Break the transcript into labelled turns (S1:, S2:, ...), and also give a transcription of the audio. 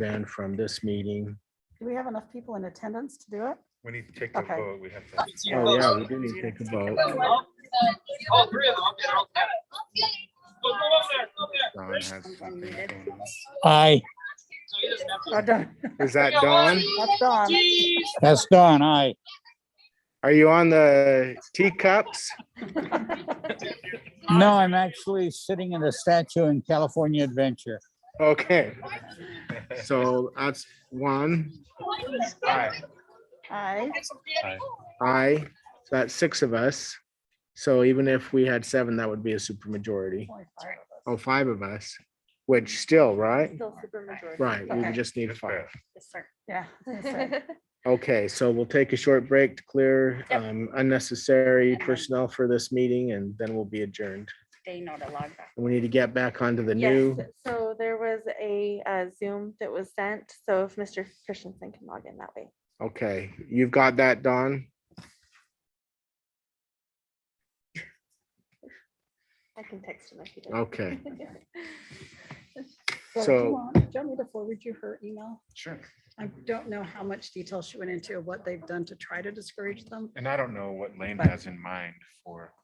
S1: then from this meeting.
S2: Do we have enough people in attendance to do it?
S3: We need to take the
S2: Okay.
S3: vote. We have to.
S1: Oh, yeah, we didn't take a vote.
S4: All three of them. okay, they're all together. Go, go up there, go up there.
S1: Dawn has something going on.
S5: Aye,
S4: So you just have to-
S2: Oh, darn,
S6: Is that
S4: Yeah,
S6: Dawn?
S2: That's Dawn.
S4: Jeez.
S5: that's done, aye.
S6: Are you on the teacups?
S5: No, I'm actually sitting in the statue in California Adventure.
S6: Okay,
S3: All
S6: so that's one.
S3: right.
S2: Aye.
S6: I, that's six of us. So even if we had seven, that would be a supermajority.
S2: Only five of
S6: Oh, five of us, which still, right?
S7: Still super majority.
S6: Right, we
S2: Okay.
S6: would just need
S3: Just
S6: five.
S3: pass.
S7: Yes, sir.
S2: us. Yeah. I was gonna say.
S6: Okay, so we'll take a short break to clear
S7: Yep.
S6: um, unnecessary
S7: And then-
S6: personnel for this meeting and then we'll be adjourned.
S7: They know to log back.
S6: And We need to get back onto the
S7: Yes,
S6: new,
S7: so there was a uh, Zoom that was sent, so if Mr. Christensen can log in that way.
S6: okay, you've got that, Don.
S7: I can text him if he doesn't.
S6: Okay,
S2: So do
S6: So-
S2: you want- do you want me to forward you her email?
S3: Sure.
S2: I don't know how much detail she went into, what they've done to try to discourage them.
S3: And I don't know what Lane
S2: But-
S3: has in mind for